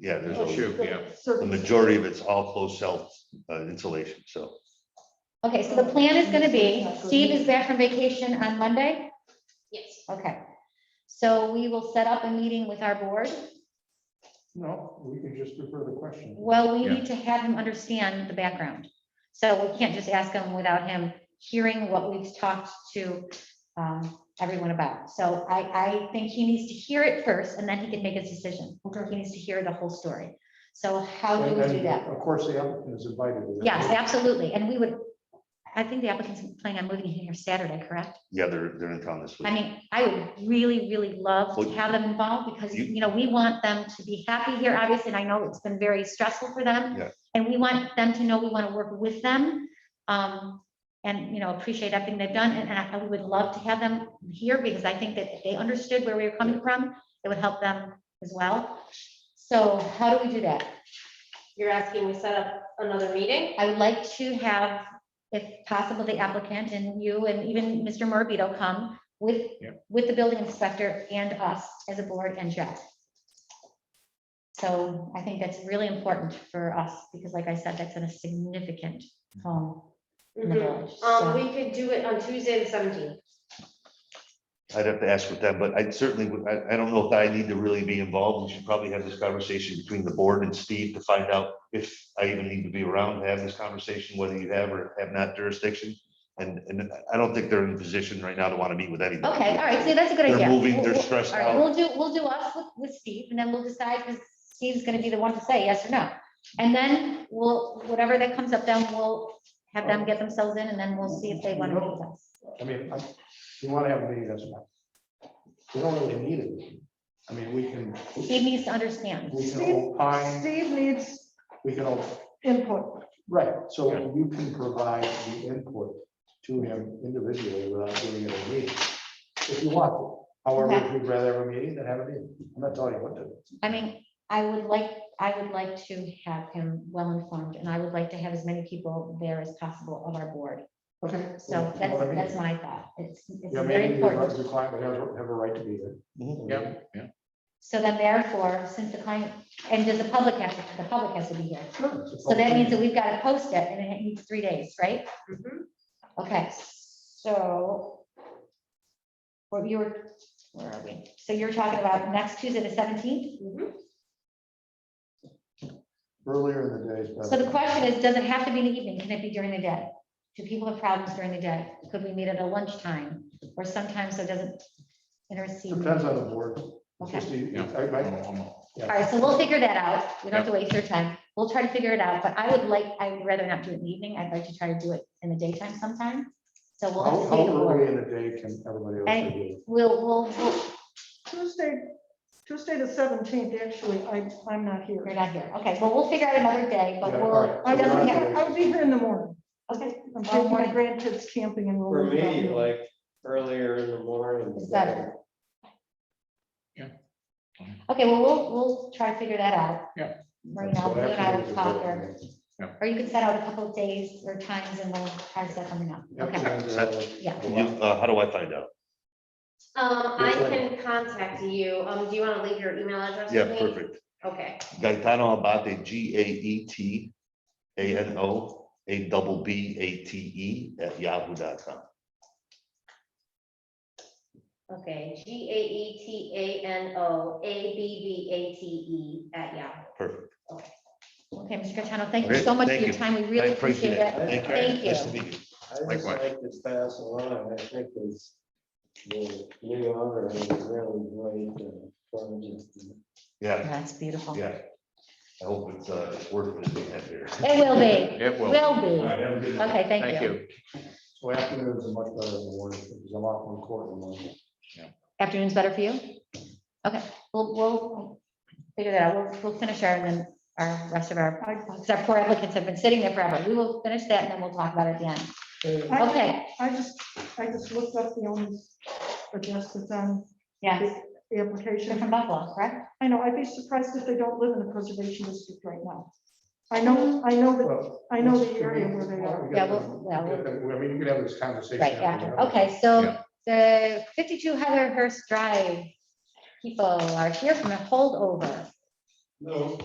yeah, there's Oh, a, shoot. yeah. the majority of it's all closed cell uh, insulation, so. Okay, so the plan is gonna be, Steve is back from vacation on Monday? Yes, Okay. So we will set up a meeting with our board. No, we can just refer the question. Well, we Yeah. need to have him understand the background. So we can't just ask him without him hearing what we've talked to um, everyone about. So I, I think he needs to hear it first and then he can make his decision. He needs to hear the whole story. So how do we And- do and that? Of course, the applicant is invited. to that. Yes, absolutely. And we would, I think the applicant's planning on moving here Saturday, correct? Yeah, they're, they're in town this I week. mean, I would really, really love to Well, have them involved because, you- you know, we want them to be happy here, obviously, and I know it's been very stressful for them. Yeah. And we want them to know we want to work with them, um, and, you know, appreciate everything they've done, and, and I I would love to have them here because I think that if they understood where we were coming from, it would help them as well. So how do we do that? you're asking we set up another meeting? I would like to have, if possible, the applicant and you and even Mr. Morbido come with, Yeah. with the building inspector and us as a board and Jeff. So I think that's really important for us because like I said, that's in a significant home. In the village, so- Um, we could do it on Tuesday, the seventeenth. I'd have to ask with them, but I certainly, would- I, I don't know if I need to really be involved. We should probably have this conversation between the board and Steve to find out if I even need to be around to have this conversation, whether you have or have not jurisdiction. And, and I don't think they're in a position right now to want to meet with anybody. Okay, all right, so that's a good idea. They're moving, We'll- they're we'll- stressed All right, out. we'll do, we'll do us with, with Steve, and then we'll decide, because Steve's gonna be the one to say yes or no. And then we'll, whatever that comes up, then we'll have them get themselves in, and then we'll see if they want to meet with us. I mean, I- you want to have a meeting, that's fine. We don't really need it. I mean, we can, Steve needs to understand. we can opine, Steve needs we can, op- input. right, so you can provide the input to him individually without doing it in a meeting, if you want to. However, if you'd rather have a meeting than have a meeting, I'm not telling you what to. do. I mean, I would like, I would like to have him well informed, and I would like to have as many people there as possible of our board. Okay. So that's, What I mean. that's my thought. It's, it's Yeah, very maybe important. the client would have, have a right to be there. Mm-hmm. Yeah, yeah. So then therefore, since the client, and does the public have, to- the public has to be here. So So that means that we've got to post it and it needs three days, right? Okay, so. What you were, where are we? So you're talking about next Tuesday, the seventeenth? Earlier in the day is So better. the question is, does it have to be in the evening? Can it be during the day? Do people have problems during the day? Could we meet at a lunchtime or sometime so it doesn't intercede? Depends on the board. It's Okay. just the- Yeah. I- I- All right, so we'll figure that out. We don't have to waste your time. We'll try to figure it out, but I would like, I would rather not do it in the evening. I'd like to try to do it in the daytime sometime. So we'll. How, have to see the how board. early in the day can everybody else And- do? it? We'll, we'll, we'll- Tuesday, Tuesday the seventeenth, actually, I, I'm not here. you're not here. Okay, well, we'll figure out another day, but Yeah, we'll. oh, all I it right. doesn't won't be have- here. I'll be here in the morning. Okay, I'm taking my grandkids camping and. For me, like earlier in the morning. It's better. Fine. Okay, well, we'll, we'll try to figure that out. Yeah. Marina, So you and I will afterwards, talk it's or, or you could set out a couple of days or times and we'll try to set something up. better. Okay, uh, Afternoons are like- yeah. You- uh, How do I find out? Um, I can contact you. Um, do you want to leave your email address? Yeah, with me? perfect. Okay, Gaetano Abate, G A E T A N O, A double B A T E at yahoo.com. okay. G A E T A N O A B B A T E at Yahoo. Perfect. Okay, Mr. Gaetano, thank you Great, so much for thank your you. time. We I really appreciate it. Thank you. Thank Nice you. to meet you. I just Likewise. like to pass along, I think it's the new owner is really great. uh, project. Yeah, That's beautiful. It yeah. I hope it's, uh, it's worth it we have here. will be, It will. will be. have a good Okay, Thank thank you. you. So afternoons are much better than the morning, because I'm off on court in the morning. Afternoon's better for you? Okay, we'll, we'll figure that out. We'll, we'll finish our, and then our rest of our, because our poor applicants have been sitting there forever. We will finish that and then we'll talk about it at the end. I- Okay, I just, I just looked up the owner's address that's on yeah, the you're from application. Buffalo, correct? I know, I'd be surprised if they don't live in the preservation district right now. I know, I know that, Well, I know the area where they are. we Yeah, got- well, well, we got them- I mean, you could have this conversation. Right, after. after. Okay, so the fifty-two Heather Hurst Drive people are here from a holdover.